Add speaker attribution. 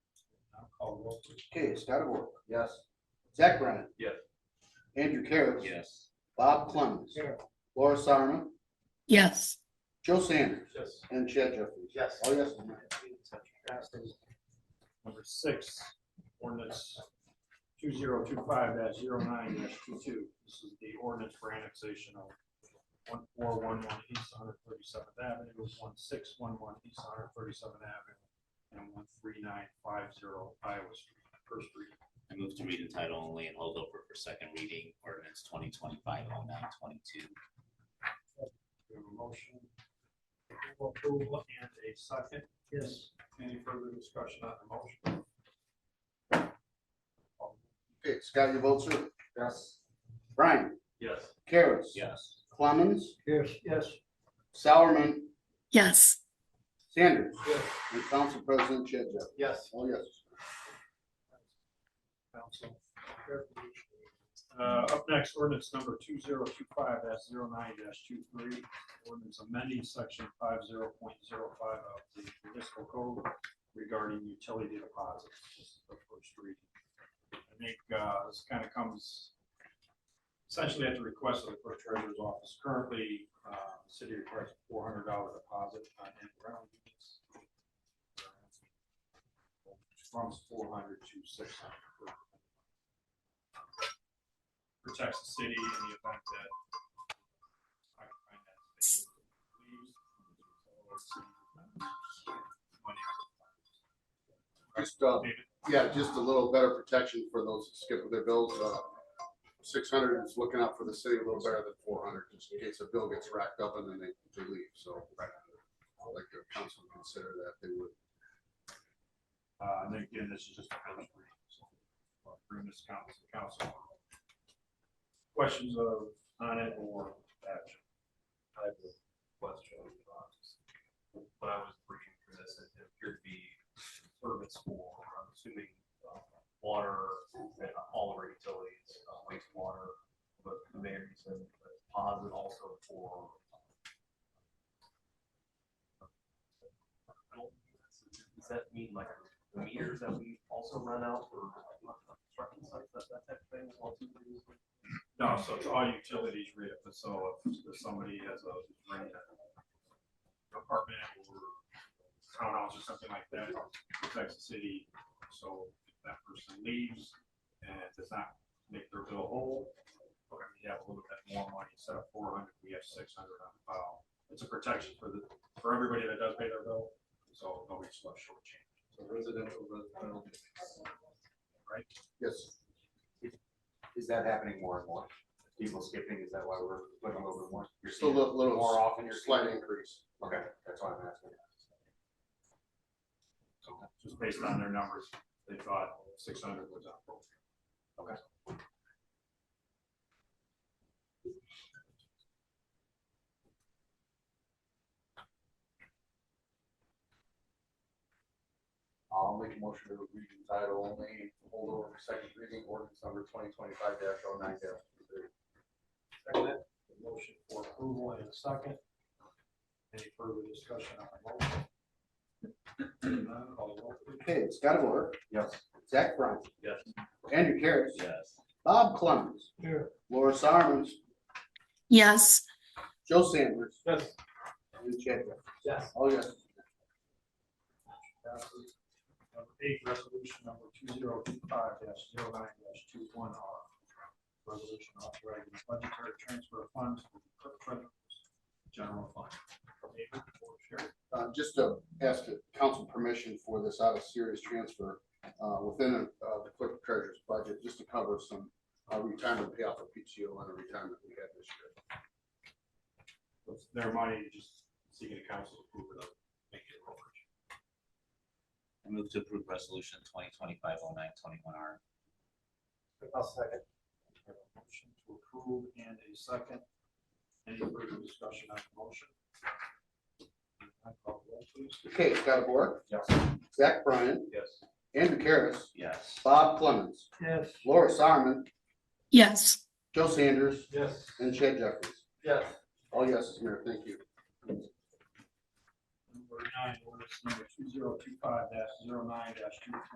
Speaker 1: Call roll, please.
Speaker 2: Okay, Scottabore,
Speaker 3: Yes.
Speaker 2: Zach Brennan.
Speaker 1: Yes.
Speaker 2: Andrew Carroll.
Speaker 3: Yes.
Speaker 2: Bob Clemens.
Speaker 1: Yeah.
Speaker 2: Laura Sarman,
Speaker 4: yes,
Speaker 2: Joe Sanders,
Speaker 1: Yes.
Speaker 2: and Chad Jeffries.
Speaker 3: Yes.
Speaker 2: Oh, yes.
Speaker 1: Passes. Number six, ordinance two zero two five 9 22. This is the ordinance for annexation of one four one one East Hundred Thirty Seventh Avenue, one six one one East Hundred Thirty Seventh Avenue, and one three nine five zero Iowa Street, first reading.
Speaker 3: I move to read in title only and hold over for second reading ordinance twenty twenty-five oh nine twenty-two.
Speaker 1: We have a motion. for Approval and a second. Yes. Any further discussion on the motion?
Speaker 2: Okay, Scott, you vote, sir.
Speaker 1: Yes.
Speaker 2: Brian,
Speaker 1: Yes.
Speaker 2: Carroll.
Speaker 3: Yes.
Speaker 2: Clemens,
Speaker 1: Yes. Yes.
Speaker 2: Sowerman,
Speaker 4: yes,
Speaker 2: Sanders,
Speaker 1: Yes.
Speaker 2: and Council President Chad Jeffries.
Speaker 1: Yes.
Speaker 2: Oh, yes.
Speaker 1: Council. Uh, up next, ordinance number two zero two five 9 23 ordinance amending section five zero point zero five of the municipal code regarding utility deposits. This is the first reading. I think, uh, this kind of comes essentially at the request of the clerk treasurer's office. Currently, uh, the city requires four hundred dollar deposit on in-ground units from four hundred to six hundred. Protects the city in the event that. occupied that space leaves.
Speaker 2: Just, uh,
Speaker 1: David?
Speaker 2: yeah, just a little better protection for those that skip with their bills. Uh, six hundred is looking out for the city a little better than four hundred, just in case a bill gets racked up and then they, they leave, so. I'd like the council to consider that, they would.
Speaker 1: Uh, and again, this is just a first reading, so, uh, bring this council, council. Questions of, on it or action?
Speaker 5: I have a question. um, When I was reading through this, it it appeared to be service for, I'm assuming, um, water and all of our utilities, uh, wastewater, but the mayor said, but deposit also for. I don't- Does that mean like the meters that we also run out for construction sites, that, that type of thing? as well, too, previously?
Speaker 1: No, so it's all utilities rate, but so if if somebody has a rent apartment or townhouse or something like that, protects the city. So if that person leaves and does not make their bill whole, we're gonna have a little bit more money, instead of four hundred, we have six hundred on file. It's a protection for the, for everybody that does pay their bill, so nobody's left shortchanged,
Speaker 5: So residential, residential.
Speaker 1: right?
Speaker 2: Yes.
Speaker 5: Is that happening more and more? People skipping, is that why we're looking over more? You're
Speaker 2: Still
Speaker 5: seeing
Speaker 2: a little,
Speaker 5: it
Speaker 2: little
Speaker 5: more often, you're
Speaker 2: slight
Speaker 5: seeing it?
Speaker 2: increase.
Speaker 5: Okay, that's why I'm asking.
Speaker 1: So just based on their numbers, they thought six hundred was appropriate.
Speaker 5: I'll make a motion to read in title only, hold over for second reading, ordinance number twenty twenty-five dash oh nine dash three.
Speaker 1: Second. Motion for approval in a second. Any further discussion on the motion? Seeing none, call the roll, please.
Speaker 2: Okay, Scottabore,
Speaker 5: Yes.
Speaker 2: Zach Bryan,
Speaker 1: Yes.
Speaker 2: Andrew Carroll,
Speaker 3: Yes.
Speaker 2: Bob Clemens,
Speaker 1: Here.
Speaker 2: Laura Sarman,
Speaker 4: yes,
Speaker 2: Joe Sanders,
Speaker 1: Yes.
Speaker 2: and Chad Jeffries.
Speaker 1: Yes.
Speaker 2: Oh, yes.
Speaker 1: Passes. Number eight, resolution number two zero two five dash zero nine dash two one R. Resolution authorizing budgetary transfer of funds from the clerk treasurer's general fund. David, or Sherry?
Speaker 2: Uh, just to ask the council permission for this out of serious transfer, uh, within, uh, the clerk treasurer's budget, just to cover some, uh, retirement payoff for PTO and the retirement we had this year.
Speaker 1: It's Their money, just seeking the council approval of making it appropriate.
Speaker 3: I move to approve resolution twenty twenty-five oh nine twenty-one R.
Speaker 1: I'll second. Motion to approve and a second. Any further discussion on the motion? Roll call, please.
Speaker 2: Okay, Scott Boras,
Speaker 1: Yes.
Speaker 2: Zach Bryan,
Speaker 1: Yes.
Speaker 2: Andrew Carroll,
Speaker 3: Yes.
Speaker 2: Bob Clemens,
Speaker 1: Yes.
Speaker 2: Laura Sarman,
Speaker 4: yes.
Speaker 2: Joe Sanders,
Speaker 1: Yes.
Speaker 2: and Chad Jeffries.
Speaker 1: Yes.
Speaker 2: All yeses, Mayor, thank you.
Speaker 1: Number nine, ordinance number two zero two five dash zero nine dash two